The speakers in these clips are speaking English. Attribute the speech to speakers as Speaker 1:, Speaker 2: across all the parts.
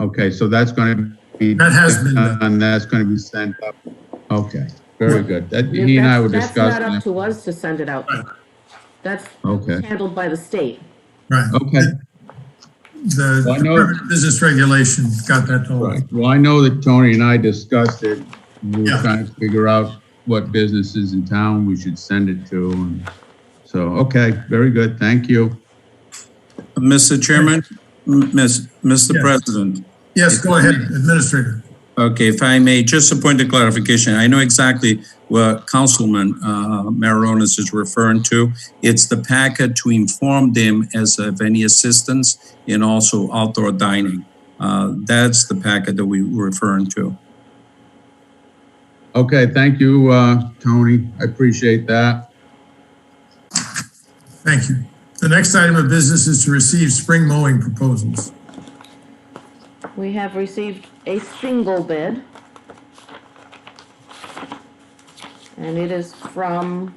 Speaker 1: Okay, so that's going to be.
Speaker 2: That has been done.
Speaker 1: And that's going to be sent up. Okay, very good. That, he and I were
Speaker 3: That's- That's not up
Speaker 1: discussing.
Speaker 3: to us to send it out. That's
Speaker 1: Okay,
Speaker 3: handled by the state.
Speaker 2: Right.
Speaker 1: okay.
Speaker 2: The
Speaker 1: Well, I know-
Speaker 2: Department of Business Regulation got that
Speaker 1: All
Speaker 2: told.
Speaker 1: Right, well, I know that Tony and I discussed it. We were
Speaker 2: Yeah.
Speaker 1: trying to figure out what businesses in town we should send it to. and So, okay, very good, thank you.
Speaker 4: Mr. Chairman, m- miss- Mr.
Speaker 2: Yes.
Speaker 4: President,
Speaker 2: Yes, go ahead, Administrator.
Speaker 4: okay, if I may, just a point of clarification. I know exactly what Councilman uh, Mararonis is referring to. It's the packet to inform them as of any assistance and also outdoor dining. Uh, That's the packet that we were referring to.
Speaker 1: Okay, thank you, uh, Tony, I appreciate that.
Speaker 2: Thank you. The next item of business is to receive spring mowing proposals.
Speaker 3: We have received a single bid. And it is from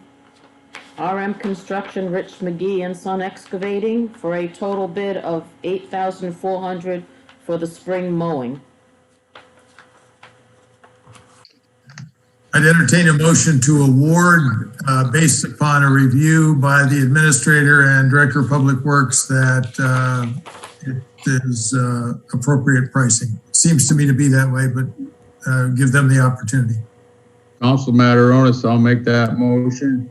Speaker 3: RM Construction, Rich McGee and Son Excavating for a total bid of eight thousand four hundred for the spring mowing.
Speaker 2: I'd entertain a motion to award, uh, based upon a review by the Administrator and Director of Public Works that, uh, it is, uh, appropriate pricing. Seems to me to be that way, but, uh, give them the opportunity.
Speaker 1: Council Mataronis, I'll make that motion.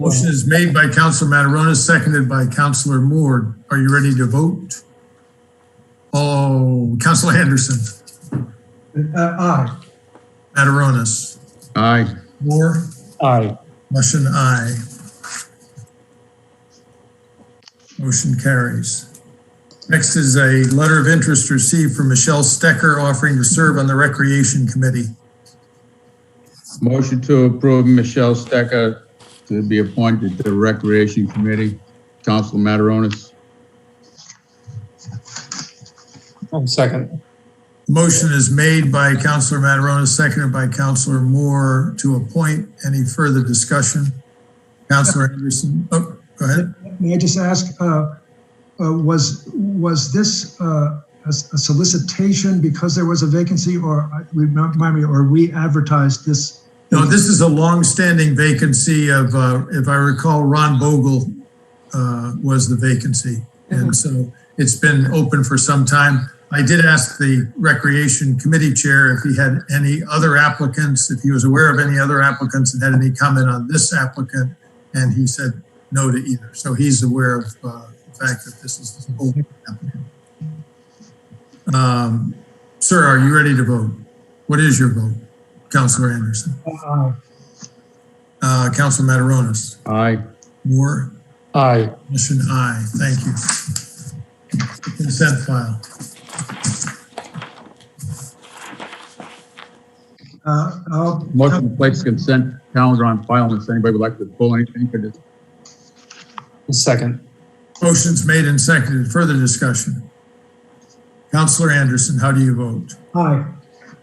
Speaker 2: Motion is made by Councilor Mataronis, seconded by Councilor Moore. Are you ready to vote? Oh, Councilor Anderson,
Speaker 5: Uh, aye.
Speaker 2: Mataronis,
Speaker 1: Aye,
Speaker 2: Moore,
Speaker 5: Aye.
Speaker 2: motion aye. Motion carries. Next is a letter of interest received from Michelle Stecker offering to serve on the Recreation Committee.
Speaker 1: motion to approve Michelle Stecker to be appointed to the Recreation Committee. Council Mataronis,
Speaker 5: One second.
Speaker 2: Motion is made by Councilor Mataronis, seconded by Councilor Moore to appoint. Any further discussion? Councilor Anderson, oh, go ahead.
Speaker 6: May I just ask, uh, uh, was, was this uh, a s- a solicitation because there was a vacancy or, I- remind me, or we advertised this?
Speaker 2: No, this is a longstanding vacancy of, uh, if I recall, Ron Bogle uh, was the vacancy. And so it's been open for some time. I did ask the Recreation Committee Chair if he had any other applicants, if he was aware of any other applicants and had any comment on this applicant, and he said no to either. So he's aware of uh, the fact that this is the open applicant. Um, Sir, are you ready to vote? What is your vote, Counselor Anderson?
Speaker 5: Aye.
Speaker 2: Uh, Counselor Mataronis?
Speaker 1: aye.
Speaker 2: Moore?
Speaker 5: Aye.
Speaker 2: Motion aye, thank you. Consent file.
Speaker 6: Uh, I'll-
Speaker 1: Motion to place consent calendar on file unless anybody would like to pull anything for this.
Speaker 5: One second.
Speaker 2: Motion's made and seconded, further discussion. Counselor Anderson, how do you vote?
Speaker 6: Aye.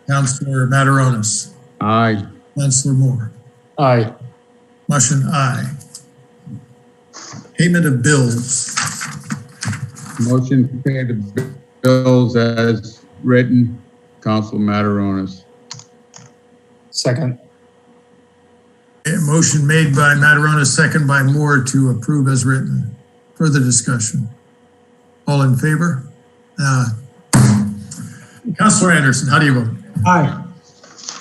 Speaker 2: Counselor Mataronis?
Speaker 1: Aye.
Speaker 2: Counselor Moore?
Speaker 5: Aye.
Speaker 2: Motion aye. Payment of bills.
Speaker 1: Motion to pay the bills as written, Council Mataronis.
Speaker 5: Second.
Speaker 2: A motion made by Mataronis, second by Moore to approve as written. Further discussion. All in favor? Uh, Counselor Anderson, how do you vote?
Speaker 6: Aye.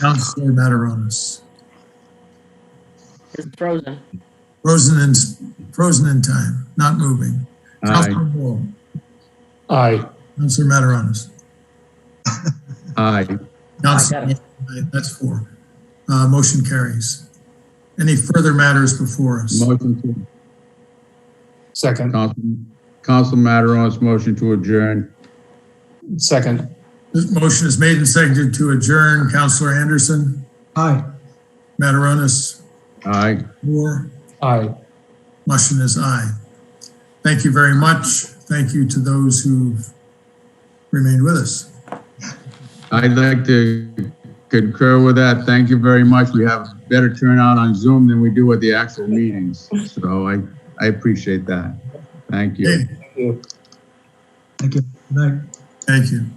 Speaker 2: Counselor Mataronis.
Speaker 3: It's frozen.
Speaker 2: Frozen in, frozen in time, not moving.
Speaker 1: Aye,
Speaker 2: Counselor Moore,
Speaker 5: Aye.
Speaker 2: Counselor Mataronis.
Speaker 1: aye.
Speaker 2: Counselor,
Speaker 3: got it.
Speaker 2: Moore, that's four. Uh, motion carries. Any further matters before us?
Speaker 1: Motion to,
Speaker 5: Second.
Speaker 1: Council, Council Mataronis, motion to adjourn.
Speaker 5: Second.
Speaker 2: This motion is made and seconded to adjourn. Counselor Anderson,
Speaker 6: Aye.
Speaker 2: Mataronis,
Speaker 1: Aye.
Speaker 2: Moore,
Speaker 5: Aye.
Speaker 2: motion is aye. Thank you very much. Thank you to those who've remained with us.
Speaker 1: I'd like to concur with that. Thank you very much. We have better turnout on Zoom than we do at the actual meetings. So I, I appreciate that. Thank you.
Speaker 2: Okay,
Speaker 6: Thank you. Good night.
Speaker 2: Thank you.